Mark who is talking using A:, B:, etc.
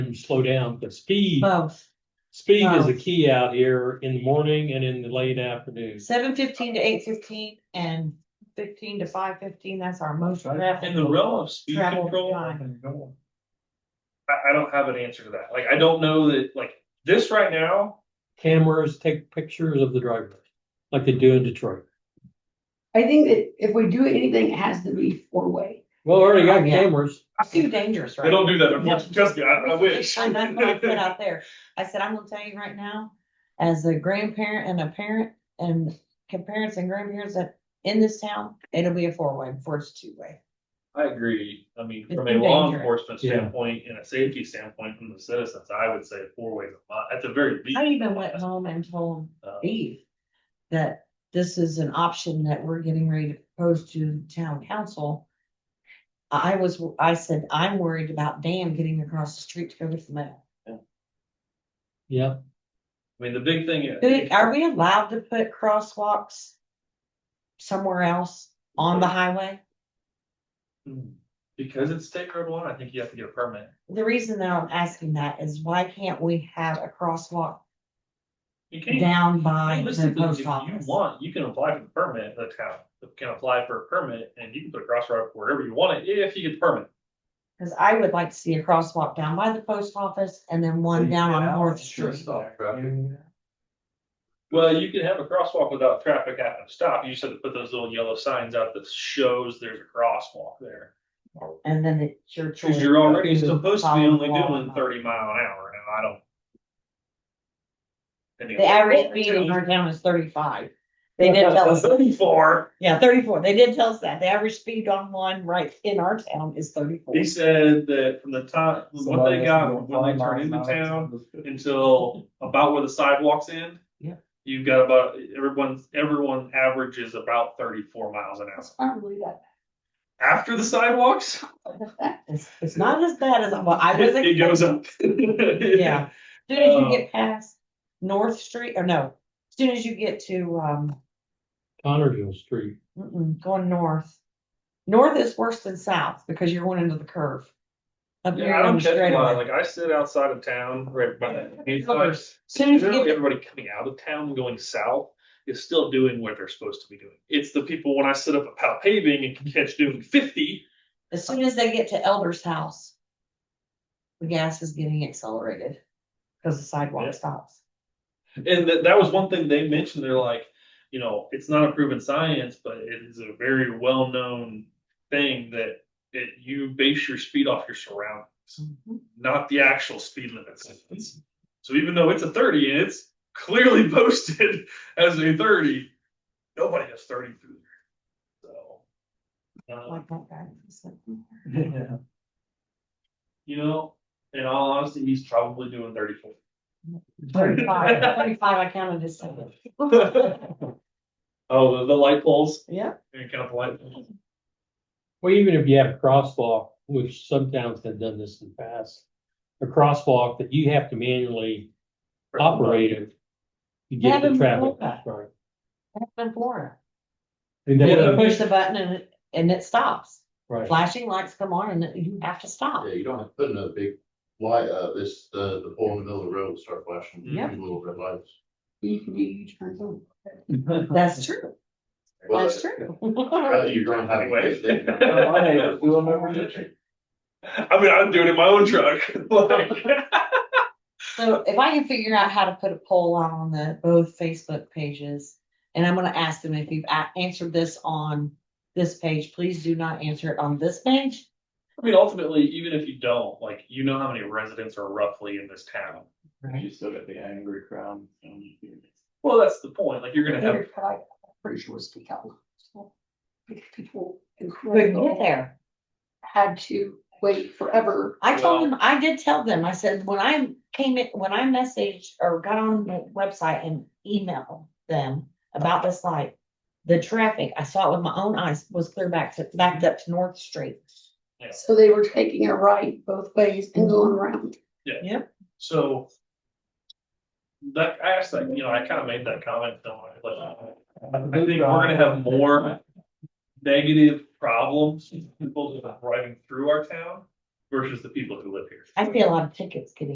A: and slow down, but speed,
B: both,
A: speed is a
B: both.
A: key out here in the morning and in the late afternoon.
B: seven fifteen to eight fifteen and fifteen to five fifteen, that's our most
C: In the
B: travel.
C: realm of speed
B: Travel
C: control.
B: time.
C: I, I don't have an answer to that. Like, I don't know that, like, this right now,
A: Cameras take pictures of the drivers, like they do in Detroit.
D: I think that if we do anything, it has to be four-way.
A: Well, already got
B: Oh, yeah.
A: cameras.
B: It's too dangerous, right?
C: they don't do that. unfortunately. Trust me, I, I wish.
B: And that's what I put out there. I said, I'm gonna tell you right now, as a grandparent and a parent and can parents and grandparents that in this town, it'll be a four-way, before it's two-way.
C: I agree. I mean,
B: It's
C: from a
B: too
C: law
B: dangerous.
C: enforcement
A: Yeah.
C: standpoint and a safety standpoint from the citizens, I would say four ways a month, at the very least.
B: I even went home and told
C: Uh,
B: Eve that this is an option that we're getting ready to propose to town council. I was, I said, I'm worried about Dan getting across the street to go get the mail.
A: Yeah,
C: I mean, the big thing is.
B: Do- Are we allowed to put crosswalks somewhere else on the highway?
C: Hmm. Because it's state road one, I think you have to get a permit.
B: The reason that I'm asking that is why can't we have a crosswalk
C: You can't.
B: down by the
C: Realistically, if
B: post
C: you
B: office?
C: want, you can apply for the permit, the town can apply for a permit and you can put a crosswalk wherever you want it, if you get the permit.
B: Cause I would like to see a crosswalk down by the post office and then one down on North Street.
C: Well, you can have a crosswalk without traffic having to stop. You just have to put those little yellow signs out that shows there's a crosswalk there.
B: And then it's your choice.
C: Cause you're already
B: to
C: supposed to be
B: follow
C: only
B: along or
C: doing
B: not.
C: thirty mile an hour and I don't. Anyway.
B: The average speed in our town is thirty-five. They did tell us,
C: Thirty-four.
B: yeah, thirty-four. They did tell us that. The average speed on one right in our town is thirty-four.
C: He said that from the time, what they got when they turned into town, until about where the sidewalks end.
B: Yeah.
C: You've got about, everyone's, everyone averages about thirty-four miles an hour.
D: That's probably that.
C: After the sidewalks,
B: It's, it's not as bad as, well, I was.
C: it goes
B: expecting-
C: up.
B: Yeah. Soon as you
C: Uh,
B: get past North Street, or no, soon as you get to, um,
A: Connersville Street.
B: mm-mm, going north. North is worse than south because you're going into the curve. Up here
C: Yeah, I
B: on
C: don't
B: the
C: catch a lot.
B: straightaway.
C: Like I sit outside of town, right by. it's like-
B: Soon as you
C: generally
B: get,
C: Everybody coming out of town, going south, is still doing what they're supposed to be doing. It's the people when I sit up about paving and can catch doing fifty.
B: as soon as they get to Elder's house. The gas is getting accelerated. Cause the
C: Yeah.
B: sidewalk stops.
C: And that, that was one thing they mentioned, they're like, you know, it's not a proven science, but it is a very well-known thing that it, you base your speed off your surroundings,
B: Mm-hmm.
C: not the actual speed limits. So even though it's a thirty and it's clearly posted as a thirty, nobody has thirty through there. So. um,
B: Like that guy. It's like, mm.
C: you know, in all honesty, he's probably doing thirty-four.
B: Thirty-five, thirty-five, I counted as seven.
C: Oh, the, the light poles,
B: Yeah,
C: you count the light poles.
A: Well, even if you have a crosswalk, which some towns have done this in the past, a crosswalk that you have to manually operate it. You get the
B: Having
A: traffic.
B: more that.
A: Right.
B: that's in Florida.
A: And
C: Yeah,
A: then,
C: but-
B: You push the button and, it- and it stops.
A: right.
B: Flashing lights come on and it- you have to stop.
E: Yeah, you don't have to put in a big light, uh, this, uh, the pole in the middle of the road will start flashing,
B: Yeah.
E: these little red lights.
D: You can do U-turns on.
B: That's true.
E: Well,
B: That's true.
E: uh, You're gonna have.
C: Anyway.
E: Anyway.
C: I mean, I'm doing it in my own truck. Like,
B: So if I can figure out how to put a poll out on the both Facebook pages, and I'm gonna ask them if you've a- answered this on this page, please do not answer it on this page.
C: I mean, ultimately, even if you don't, like, you know how many residents are roughly in this town.
F: You still got the angry crowd. um,
C: Well, that's the point. Like, you're gonna have,
D: Pretty sure it's peak hour. So, Because people in
B: Couldn't get
D: Greenville
B: there.
D: had to wait forever.
B: I told them, I did tell them, I said, when I came in, when I messaged or got on the website and emailed them about this light. The traffic, I saw it with my own eyes, was clear back to, backed up to North Street.
D: So they were taking a right both ways and going around.
C: so. That, I asked that, you know, I kind of made that comment, don't I? Like, I think we're gonna have more negative problems, people driving through our town versus the people who live here.
B: I see a lot of tickets getting